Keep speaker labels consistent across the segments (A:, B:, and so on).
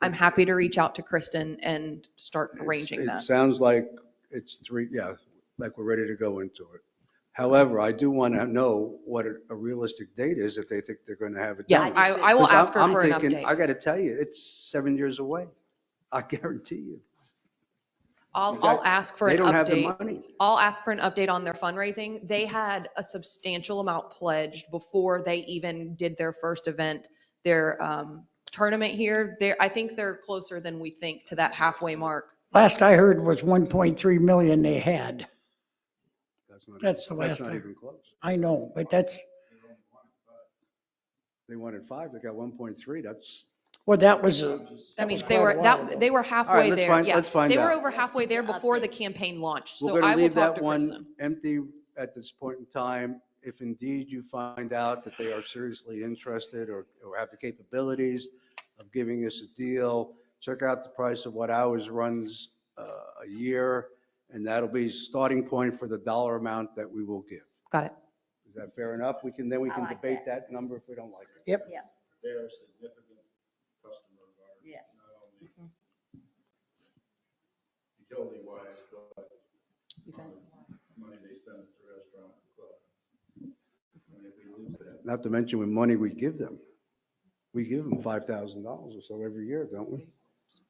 A: I'm happy to reach out to Kristen and start arranging
B: It's-
A: that.
B: It sounds like it's three, yeah, like we're ready to go into it. However, I do want to know what a a realistic date is if they think they're going to have it.
A: Yes,
B: done.
A: I, I will
B: 'Cause I'm-
A: ask her
B: I'm
A: for an
B: thinking, I
A: update.
B: got to tell you, it's seven years away. I guarantee you.
A: I'll,
B: you got-
A: I'll ask for
B: They
A: an
B: don't have the
A: update.
B: money.
A: I'll ask for an update on their fundraising. They had a substantial amount pledged before they even did their first event, their um, tournament here. They're, I think they're closer than we think to that halfway mark.
C: Last I heard was 1.3 million they had.
B: not-
C: That's the last
B: That's not
C: time.
B: even close.
C: I know, but that's,
B: They wanted five, they got 1.3, that's.
C: well, that was, a-
A: That means
C: was
A: they
C: quite
A: were,
C: a while
A: that,
C: ago.
A: they were halfway
B: let's
A: there.
B: find-
A: Yeah.
B: let's find
A: They were
B: out.
A: over halfway there before the campaign launched.
B: We're
A: So
B: going
A: I
B: to
A: will
B: leave
A: talk
B: that
A: to Kristen.
B: one empty at this point in time. If indeed you find out that they are seriously interested or, or have the capabilities of giving us a deal, check out the price of what ours runs uh, a year, and that'll be starting point for the dollar amount that we will give.
A: Got it.
B: Is that fair enough? We can, then we
D: I
B: can
D: like
B: debate that number if we don't like it.
E: They're a significant customer of ours,
D: Yes.
E: not only utility wise, but money they spend at the restaurant and club. And if we lose that,
B: Not to mention with money we give them. We give them $5,000 or so every year, don't we?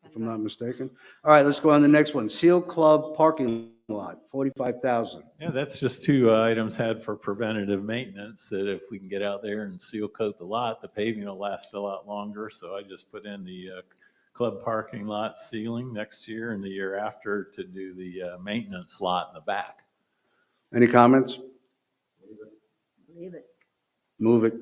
B: if I'm not mistaken. All right, let's go on to the next one. Seal Club parking lot, 45,000.
F: Yeah, that's just two uh, items had for preventative maintenance, that if we can get out there and seal coat the lot, the paving will last a lot longer. So I just put in the uh, club parking lot ceiling next year and the year after to do the uh, maintenance lot in the back.
B: Any comments?
D: Leave it.
B: Move it.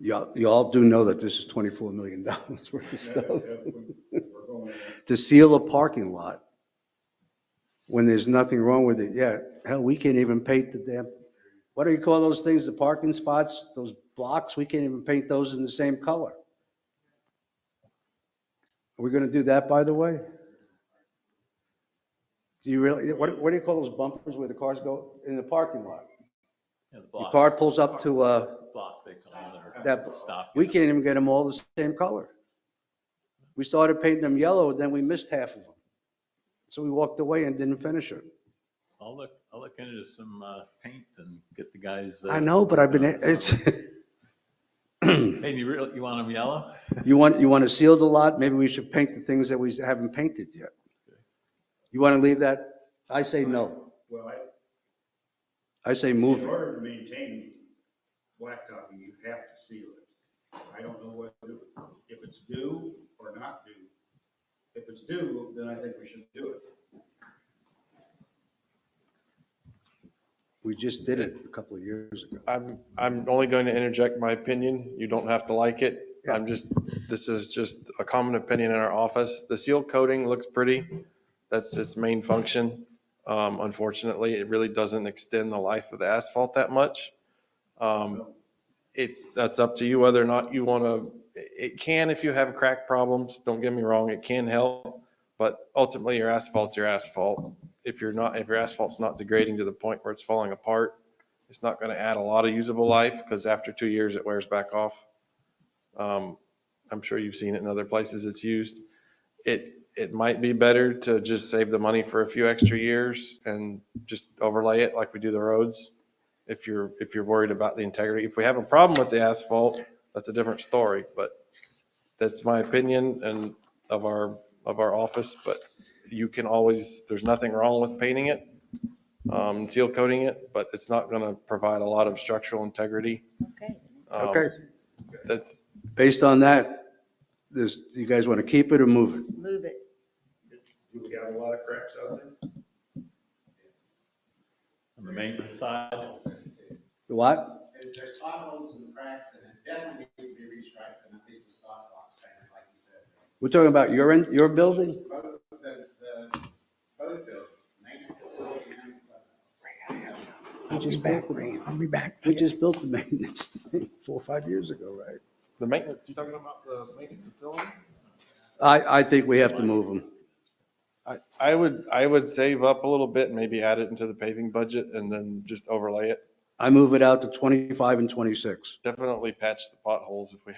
B: Y'all, y'all do know that this is $24 million worth of stuff.
E: we're going in
B: To seal a parking lot when there's nothing wrong with it yet, hell, we can't even paint the damn, what do you call those things, the parking spots, those blocks? We can't even paint those in the same color. Are we going to do that, by the way? Do you really, what, what do you call those bumpers where the cars go in the parking lot?
F: Yeah, the
B: Your
F: block-
B: car pulls up to, uh,
F: Block they call it, or
B: that,
F: stop.
B: we can't even get them all the same color. We started painting them yellow, and then we missed half of them. So we walked away and didn't finish it.
F: I'll look, I'll look into some uh, paint and get the guys. uh,
B: I know, but I've been,
F: uh,
B: it's,
F: Hey, you really, you want them yellow?
B: you want, you want to seal the lot, maybe we should paint the things that we haven't painted yet. You want to leave that? I say no.
E: Well, I-
B: I say
E: in
B: move it.
E: order to maintain blacktopping, you have to seal it. I don't know what, to do if it's due or not due. If it's due, then I think we should do it.
B: We just did it a couple of years ago.
G: I'm, I'm only going to interject my opinion. You don't have to like it. I'm just, this is just a common opinion in our office. The seal coating looks pretty. That's its main function. Um, Unfortunately, it really doesn't extend the life of the asphalt that much. Um, It's, that's up to you whether or not you want to, it can if you have crack problems, don't get me wrong, it can help. But ultimately, your asphalt's your asphalt. If you're not, if your asphalt's not degrading to the point where it's falling apart, it's not going to add a lot of usable life because after two years, it wears back off. Um, I'm sure you've seen it in other places it's used. It, it might be better to just save the money for a few extra years and just overlay it like we do the roads. If you're, if you're worried about the integrity, if we have a problem with the asphalt, that's a different story, but that's my opinion and of our, of our office, but you can always, there's nothing wrong with painting it um, seal coating it, but it's not going to provide a lot of structural integrity.
D: Okay.
G: Um,
B: Okay,
G: That's,
B: based on that, this, you guys want to keep it or move it?
D: Move it.
E: Do we have a lot of cracks out there?
F: On the maintenance side?
B: The what?
H: There- There's potholes and cracks and it definitely needs to be restriped and at least the stop box painted, like you said.
B: We're talking about your, end- your building?
H: Both, the, the, both buildings, the maintenance facility and the clubhouse.
C: I'll be back, Ray. I'll be back.
B: We just built the maintenance thing four or five years ago, right?
G: the maintenance, you're talking about the maintenance facility?
B: I, I think we have to move them.
G: I, I would, I would save up a little bit, maybe add it into the paving budget and then just overlay it.
B: I move it out to 25 and 26.
G: Definitely patch the potholes if we have